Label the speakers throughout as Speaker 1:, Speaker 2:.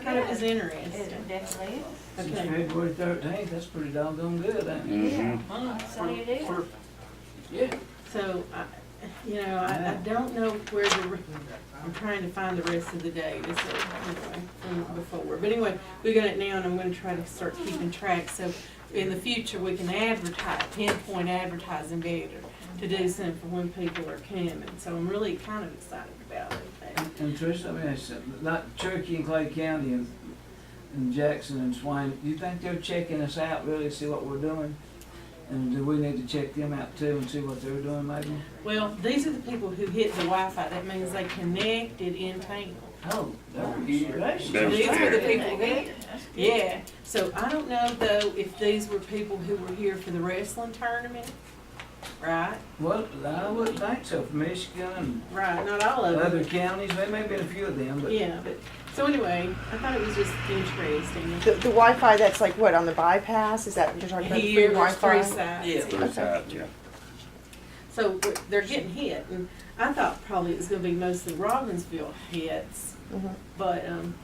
Speaker 1: thought it was interesting.
Speaker 2: It definitely is.
Speaker 3: Since
Speaker 1: Okay.
Speaker 3: February thirteenth, that's pretty doggone good, ain't it?
Speaker 4: Mhm.
Speaker 2: That's all you do.
Speaker 3: For-
Speaker 4: Mm-hmm.
Speaker 3: Yeah,
Speaker 1: So, I, you know, I, I don't know where the, re- I'm trying to find the rest of the day, this, is, anyway, from before. But anyway, we got it now and I'm gonna try to start keeping track, so in the future, we can advertise, pinpoint advertising better to do something for when people are coming, so I'm really kind of excited about it.
Speaker 3: and- and Trish, I mean, it's something- like Cherokee and Clay County and, and Jackson and Swain, do you think they're checking us out really, to see what we're doing? And do we need to check them out too and see what they're doing maybe?
Speaker 1: Well, these are the people who hit the Wi-Fi. that means they connected in town.
Speaker 3: Oh, that would be gracious.
Speaker 4: That was
Speaker 1: These were the
Speaker 4: fair.
Speaker 1: people that, yeah, so I don't know though if these were people who were here for the wrestling tournament, right?
Speaker 3: Well, I wouldn't think so, from Michigan
Speaker 1: Right, not all
Speaker 3: and
Speaker 1: of them,
Speaker 3: other counties, there may be a few of them, but
Speaker 1: yeah, but, so anyway, I thought it was just interesting.
Speaker 5: The, the Wi-Fi that's like what on the bypass? Is that what you're talking about? the free
Speaker 1: Here, there's
Speaker 5: Wi-Fi.
Speaker 1: three sides,
Speaker 4: Those out, yeah.
Speaker 1: so we're- they're getting hit, and I thought probably it was gonna be mostly Robbinsville hits,
Speaker 5: Mhm.
Speaker 1: but, um,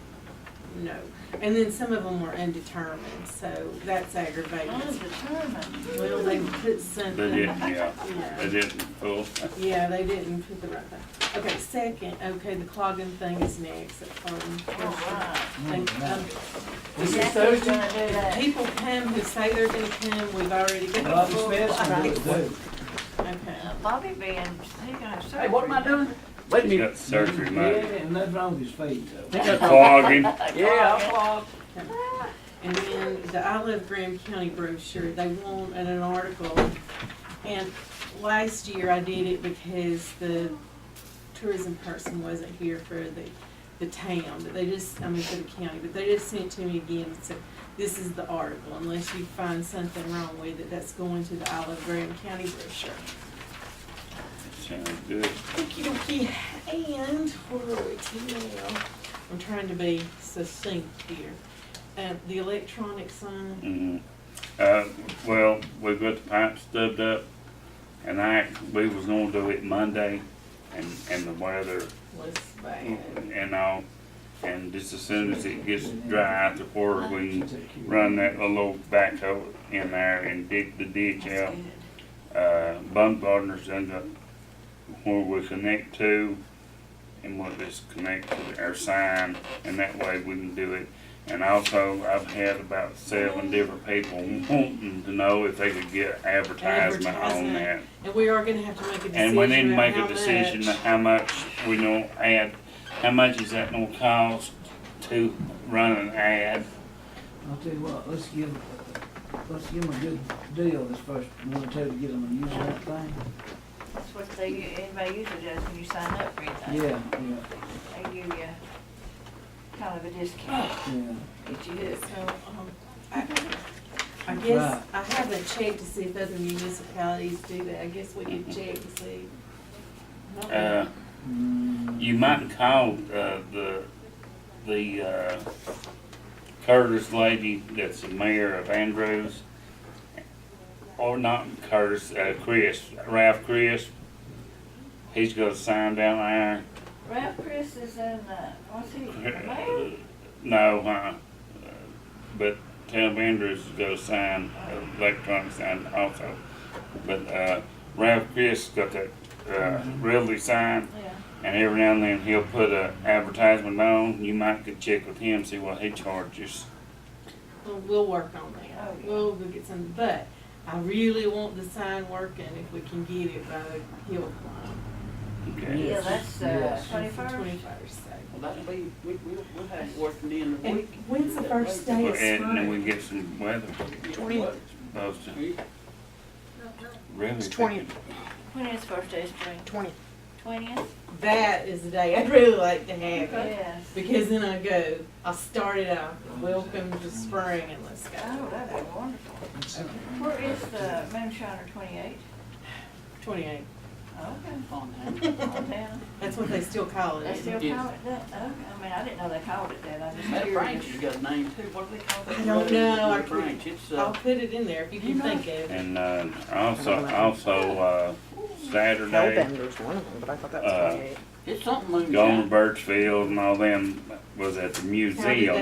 Speaker 1: no. And then some of them were undetermined, so that's aggravating.
Speaker 2: Undetermined.
Speaker 1: Well, they put something.
Speaker 4: They didn't, yeah,
Speaker 1: Yeah.
Speaker 4: they didn't pull.
Speaker 1: Yeah, they didn't put the right thing. Okay, second, okay, the clogging thing is next, at
Speaker 2: All
Speaker 1: Clogan.
Speaker 2: right.
Speaker 1: And, um,
Speaker 3: this is
Speaker 2: Jackie's
Speaker 3: Thursday.
Speaker 2: gonna do that.
Speaker 1: People come who say they're gonna come, we've already got.
Speaker 3: Bobby
Speaker 1: full
Speaker 3: Smith's gonna do it
Speaker 1: flights.
Speaker 3: too.
Speaker 1: Okay.
Speaker 2: Bobby being, he gonna have surgery.
Speaker 3: Hey, what am I doing? Wait a
Speaker 4: He's
Speaker 3: minute.
Speaker 4: got surgery,
Speaker 3: Yeah,
Speaker 4: mate.
Speaker 3: and nothing wrong with his feet though.
Speaker 4: Clogging.
Speaker 3: Yeah, I clogged.
Speaker 1: And then the I Love Graham County brochure, they want an an article. And last year I did it because the tourism person wasn't here for the, the town, but they just, I mean, for the county, but they just sent it to me again and said, this is the article, unless you find something wrong with it, that's going to the I Love Graham County brochure.
Speaker 4: Sounds good.
Speaker 1: Okey-dokey, and where are we to now? I'm trying to be succinct here. Uh, the electronic sign.
Speaker 4: Mhm. Uh, well, we've got the pipe stubbed up, and I, we was gonna do it Monday, and, and the weather
Speaker 1: was bad.
Speaker 4: and all, and just as soon as it gets dry out the water, we run that little old backhoe in there and dig the ditch out. Uh, Baumgartner's done got where we connect to, and we'll just connect to our sign, and that way we can do it. And also, I've had about seven different people wanting to know if they could get advertisement on
Speaker 1: Advertisement.
Speaker 4: that.
Speaker 1: And we are gonna have to make a decision
Speaker 4: And we need to
Speaker 1: about
Speaker 4: make a
Speaker 1: how
Speaker 4: decision
Speaker 1: much.
Speaker 4: how much we gonna add, how much is that gonna cost to run an ad?
Speaker 3: I'll tell you what, let's give, let's give them a good deal this first one or two to get them to use that thing.
Speaker 2: That's what they, anybody usually does when you sign up for anything.
Speaker 3: Yeah, yeah,
Speaker 2: They give you kind of a discount,
Speaker 3: yeah.
Speaker 2: get you hooked.
Speaker 1: So, um, I, I guess, I haven't checked to see if other municipalities do that, I guess we could check to see.
Speaker 4: Mm-hmm. Uh,
Speaker 3: Mm,
Speaker 4: you might call, uh, the, the, uh, Curtis lady that's the mayor of Andrews. Or not Curtis, uh, Chris, Ralph Chris. He's got a sign down there.
Speaker 2: Ralph Chris is in, uh, what's he, the mayor?
Speaker 4: No, huh? But Ted Andrews has got a sign, electronic sign also. But uh, Ralph Chris got that uh, Ridley sign,
Speaker 2: Yeah.
Speaker 4: and every now and then he'll put a advertisement on. You might could check with him, see what he charges.
Speaker 1: We'll, we'll work on
Speaker 2: Oh,
Speaker 1: that,
Speaker 2: yeah.
Speaker 1: we'll, we'll get some, but I really want the sign working if we can get it by the hill climb.
Speaker 4: Okay.
Speaker 2: Yeah,
Speaker 3: Yes,
Speaker 2: that's, uh,
Speaker 3: yes.
Speaker 2: twenty-first.
Speaker 1: Twenty-first, so.
Speaker 6: Well, that'll be, we, we'll, we'll have it working in the
Speaker 1: And
Speaker 6: week.
Speaker 1: when's the first day
Speaker 4: Well,
Speaker 1: of
Speaker 4: and then we
Speaker 1: spring?
Speaker 4: get some weather.
Speaker 6: Twenty.
Speaker 4: Those really
Speaker 5: It's 20.
Speaker 4: thinking-
Speaker 2: When is first day of spring?
Speaker 5: Twenty.
Speaker 2: Twentieth?
Speaker 1: That is the day I'd really like to have it.
Speaker 2: Yes.
Speaker 1: Because then I go, I start it off, welcome to spring and let's
Speaker 2: Oh,
Speaker 1: go.
Speaker 2: that'd be wonderful. Where is the Moonshiner twenty-eight?
Speaker 1: Twenty-eight,
Speaker 2: Okay.
Speaker 6: On hand.
Speaker 2: On down.
Speaker 1: that's what they still call
Speaker 2: They
Speaker 1: it.
Speaker 2: still
Speaker 6: Yes.
Speaker 2: call it that? Okay, I mean, I didn't know they called it that. I just
Speaker 6: That branch
Speaker 2: curious.
Speaker 6: has got a name too, what do they call that?
Speaker 1: I don't know.
Speaker 6: That Branch, it's,
Speaker 1: I'll
Speaker 6: uh,
Speaker 1: put it in there if you can think of it.
Speaker 4: And uh, also, also uh, Saturday,
Speaker 5: Hellbender's one of them, but I thought that
Speaker 4: Uh,
Speaker 5: was twenty-eight.
Speaker 6: it's something moonshine.
Speaker 4: Gone Birchfield and all them was at the museum.